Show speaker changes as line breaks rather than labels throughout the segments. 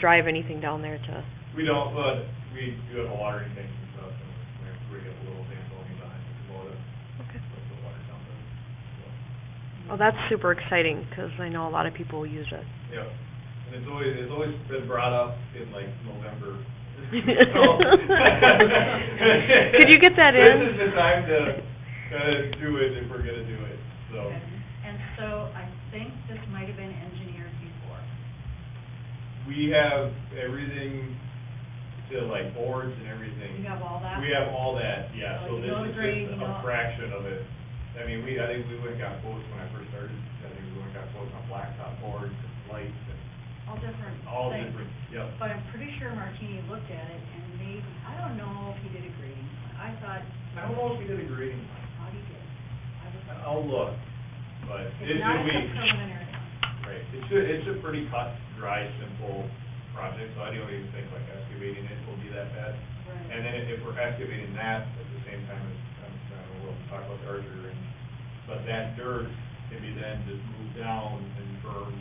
drive anything down there to,
We don't, but we do have a watering tank and stuff, and we have, we have a little thing going behind the Kubota,
okay.
with the water down there, so.
Well, that's super exciting, because I know a lot of people use it.
Yeah, and it's always, it's always been brought up in like November. So-
Could you get that in?
This is the time to, to do it if we're gonna do it, so.
And so I think this might have been engineered before.
We have everything to like boards and everything.
You have all that?
We have all that, yeah, so
Like
this
no
is
grade,
just
no-
a fraction of it. I mean, we, I think we went and got quotes when I first started, I think we went and got quotes on blacktop boards and lights and
All different
all
things.
different, yep.
But I'm pretty sure Martini looked at it and maybe, I don't know if he did a grading. plan. I thought,
I don't know if we did a grading plan.
how he did. I was-
I'll look, but it
It's not
should
a
be,
preliminary.
right, it's a, it's a pretty cut, dry, simple project, so I don't even think like excavating it will be that bad.
Right.
And then if we're excavating that at the same time as, I'm trying to, we'll talk about the archer and, but that dirt can be then just moved down and burned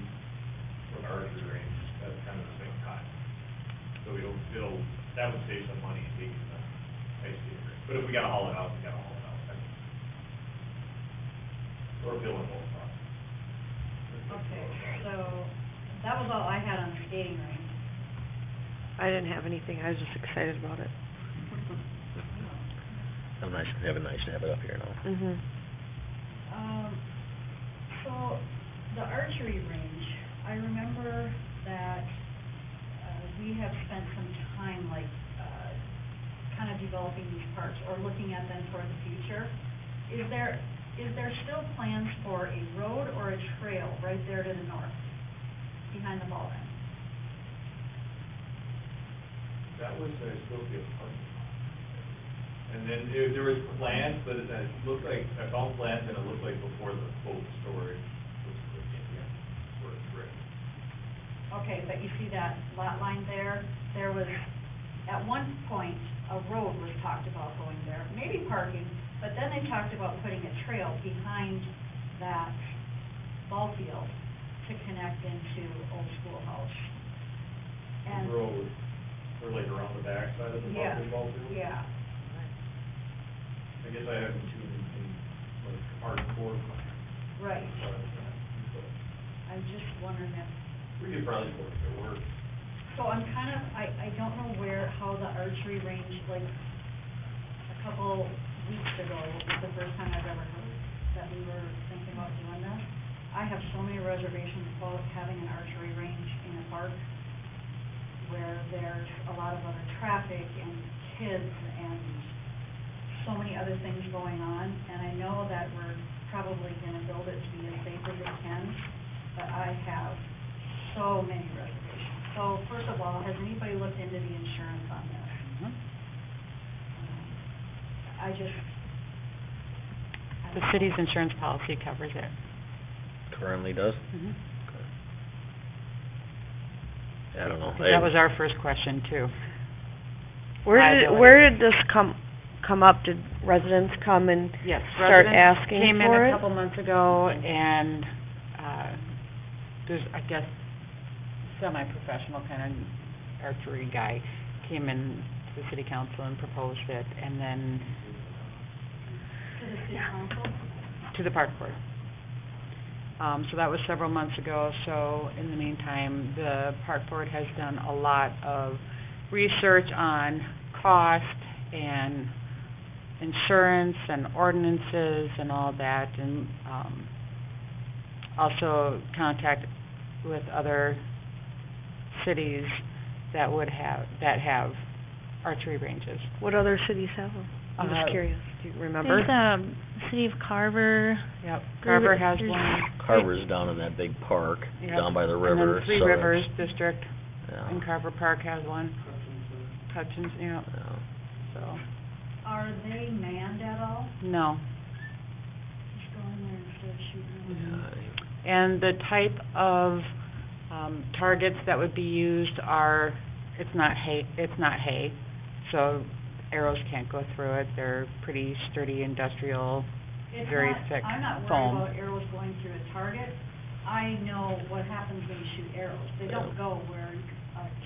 with archer range, that's kind of the same time. So we don't feel, that would save some money in uh, taking the excavator, but if we gotta haul it out, we gotta haul it out. I mean, We're feeling both processes.
Okay, so that was all I had on the skating rink.
I didn't have anything, I was just excited about it.
I'm nice, having nice to have it up here now.
Mhm.
Um, so, the archery range, I remember that, uh, we have spent some time like, uh, kind of developing these parks or looking at them for the future. Is there, is there still plans for a road or a trail right there to the north, behind the ball then?
That was, uh, supposed to be a parking lot. And then there, there was plans, but it, it looked like, I found plans and it looked like before the boat storage was put in, yeah, sort of brick.
Okay, but you see that lot line there? There was, at one point, a road was talked about going there, maybe parking, but then they talked about putting a trail behind that ball field to connect into Old Schoolhouse. And,
Road, or like around the backside of the
Yeah,
basketball field.
yeah.
I guess I haven't seen it in, like, hardcore plans.
Right.
as far as that, but
I'm just wondering if,
We could probably work it, work.
so I'm kind of, I, I don't know where, how the archery range, like, a couple weeks ago, was the first time I've ever heard that we were thinking about doing this. I have so many reservations about having an archery range in a park where there's a lot of other traffic and kids and so many other things going on. And I know that we're probably gonna build it to be as safe as it can, but I have so many reservations. So first of all, has anybody looked into the insurance on this?
Mm-hmm.
I just.
The city's insurance policy covers it.
Currently does?
Mhm.
I don't know.
That was our first question, too.
Where did,
Liability.
where did this come, come up? Did residents come and
Yes.
start
residents
asking
Came
for
in
it?
a couple months ago, and uh, there's, I guess, semi-professional kind of archery guy came in to the city council and proposed it, and then
To the city council?
to the park board. Um, so that was several months ago, so in the meantime, the park board has done a lot of research on cost and insurance and ordinances and all that, and, um, also contact with other cities that would have, that have archery ranges.
What other cities have them? I'm
Uh,
just curious, do you remember?
There's, um, City of Carver,
Yep,
There-
Carver has
there's-
one.
Carver's down in that big park,
Yep.
down by the river.
And then Three
so
Rivers
it's- uh,
District
yeah,
in Carver Park has one. Hutchins, yeah,
yeah.
so,
Are they manned at all?
no.
Just go in there and start shooting them?
Yeah, I-
And the type of, um, targets that would be used are, it's not hay, it's not hay, so arrows can't go through it. They're pretty sturdy industrial,
It's
Very
not-
thick
I'm not
foam.
worried about arrows going through a target. I know what happens when you shoot arrows. They don't
Yeah.
go where